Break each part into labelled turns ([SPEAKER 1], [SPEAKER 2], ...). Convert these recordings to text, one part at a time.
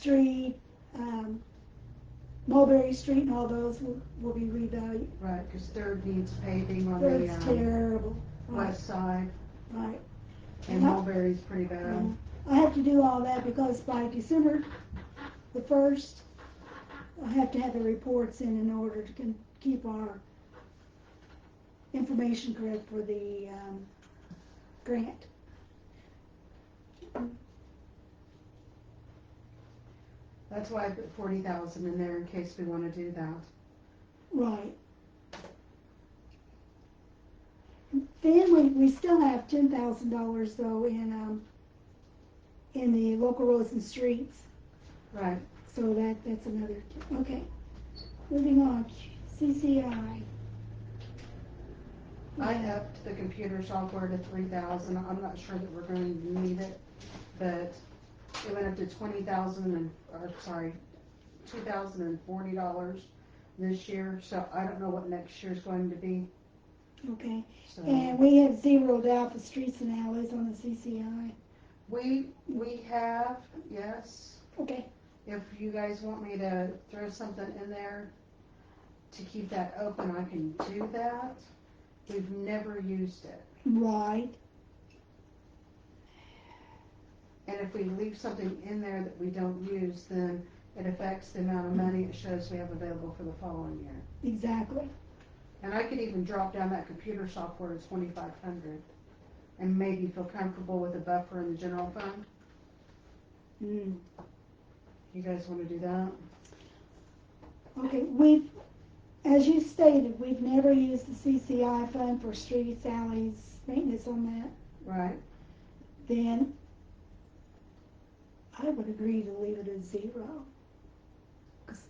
[SPEAKER 1] Street, um, Mulberry Street and all those will, will be revalued.
[SPEAKER 2] Right, because Third needs paving on the
[SPEAKER 1] That's
[SPEAKER 2] um,
[SPEAKER 1] terrible. Uh-huh. Right,
[SPEAKER 2] west side,
[SPEAKER 1] right.
[SPEAKER 2] and
[SPEAKER 1] Yeah.
[SPEAKER 2] Mulberry's pretty bad.
[SPEAKER 1] I have to do all that because by December the first, I have to have the reports in in order to can keep our information correct for the, um, grant.
[SPEAKER 2] That's why I put forty thousand in there in case we want to do that.
[SPEAKER 1] Right. Then we, we still have ten thousand dollars though in, um, in the local roads and streets,
[SPEAKER 2] Right,
[SPEAKER 1] so that, that's another, okay. Moving on, CCI.
[SPEAKER 2] I upped the computer software to three thousand, I'm not sure that we're going to need it, but it went up to twenty thousand and, or sorry, two thousand and forty dollars this year, so I don't know what next year's going to be,
[SPEAKER 1] Okay,
[SPEAKER 2] so.
[SPEAKER 1] and we have zeroed out the streets and alleys on the CCI,
[SPEAKER 2] We, we have, yes,
[SPEAKER 1] okay,
[SPEAKER 2] If you guys want me to throw something in there to keep that open, I can do that. We've never used it.
[SPEAKER 1] right,
[SPEAKER 2] And if we leave something in there that we don't use, then it affects the amount of money it shows we have available for the following year.
[SPEAKER 1] exactly,
[SPEAKER 2] And I could even drop down that computer software to twenty-five hundred and maybe feel comfortable with a buffer in the general fund.
[SPEAKER 1] mm.
[SPEAKER 2] You guys wanna do that?
[SPEAKER 1] Okay, we've, as you stated, we've never used the CCI fund for streets, alleys, maintenance on that,
[SPEAKER 2] Right?
[SPEAKER 1] then I would agree to leave it at zero. 'Cause-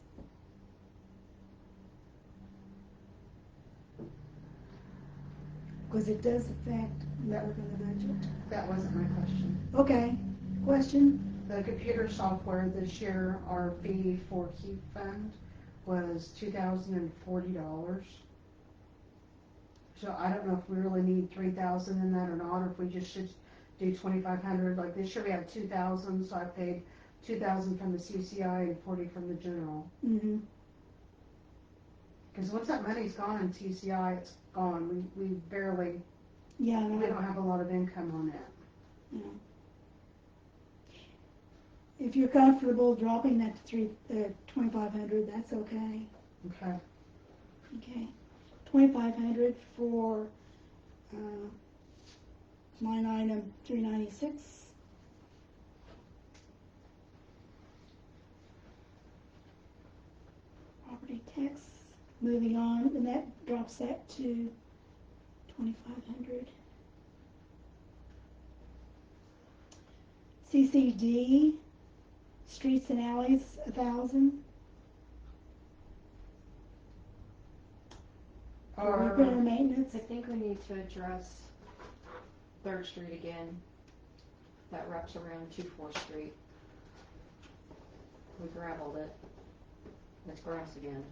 [SPEAKER 1] Cause it does affect the work of the budget.
[SPEAKER 2] That wasn't my question.
[SPEAKER 1] Okay, question,
[SPEAKER 2] The computer software this year, our fee for Keep Fund was two thousand and forty dollars. So I don't know if we really need three thousand in that or not, or if we just should do twenty-five hundred, like this year we have two thousand, so I paid two thousand from the CCI and forty from the general.
[SPEAKER 1] mm-hmm,
[SPEAKER 2] Cause once that money's gone in TCI, it's gone, we, we barely,
[SPEAKER 1] yeah, I know.
[SPEAKER 2] we don't have a lot of income on it.
[SPEAKER 1] if you're comfortable dropping that to three, uh, twenty-five hundred, that's okay.
[SPEAKER 2] Okay,
[SPEAKER 1] Okay, twenty-five hundred for, uh, line item three ninety-six. Property tax, moving on, and that drops that to twenty-five hundred. CCD, streets and alleys, a thousand.
[SPEAKER 2] Uh-huh.
[SPEAKER 1] Repair and
[SPEAKER 2] or,
[SPEAKER 1] maintenance.
[SPEAKER 3] I think we need to address Third Street again, that wraps around to Fourth Street. We gravelled it, it's grass again,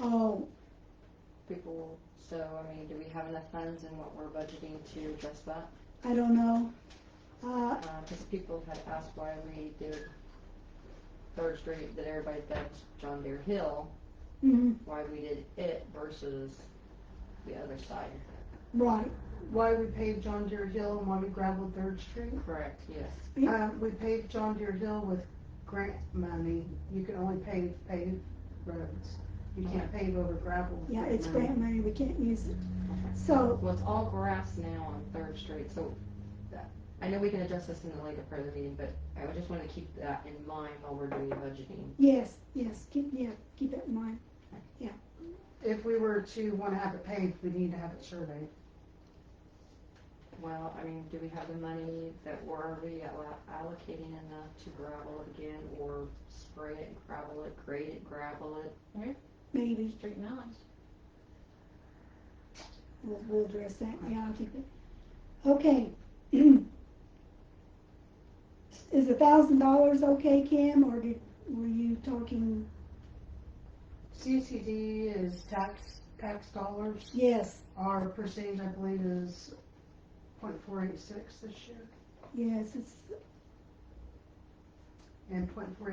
[SPEAKER 1] Oh,
[SPEAKER 3] people, so, I mean, do we have enough funds in what we're budgeting to address that?
[SPEAKER 1] I don't know. Uh,
[SPEAKER 3] Uh, cause people had asked why we did Third Street, that everybody thinks John Deere Hill,
[SPEAKER 1] mm,
[SPEAKER 3] why we did it versus the other side.
[SPEAKER 1] right.
[SPEAKER 2] why we paid John Deere Hill and why we gravelled Third Street?
[SPEAKER 3] Correct, yes.
[SPEAKER 2] Uh, we paved John Deere Hill with grant money. You can only pave paved roads. You can't pave over gravel. with
[SPEAKER 1] Yeah, it's
[SPEAKER 2] money.
[SPEAKER 1] grant money. We can't use it. So,
[SPEAKER 3] Well, it's all grass now on Third Street, so that- I know we can adjust this in a later part of the meeting, but I would just want to keep that in mind while we're doing budgeting.
[SPEAKER 1] yes, yes, keep, yeah, keep that in mind.
[SPEAKER 2] If we were to wanna have it paved, we need to have it surveyed.
[SPEAKER 3] Well, I mean, do we have the money that we're already allo- allocating enough to gravel it again, or spray it, gravel it, grade it, gravel it?
[SPEAKER 1] Maybe
[SPEAKER 3] Straighten out.
[SPEAKER 1] we'll, we'll address that. Yeah, I'll keep it. Okay. Is a thousand dollars okay, Kim, or did, were you talking?
[SPEAKER 2] CCD is tax, tax dollars.
[SPEAKER 1] Yes,
[SPEAKER 2] Our percentage, I believe, is point four eight six this year.
[SPEAKER 1] yes, it's
[SPEAKER 2] and put three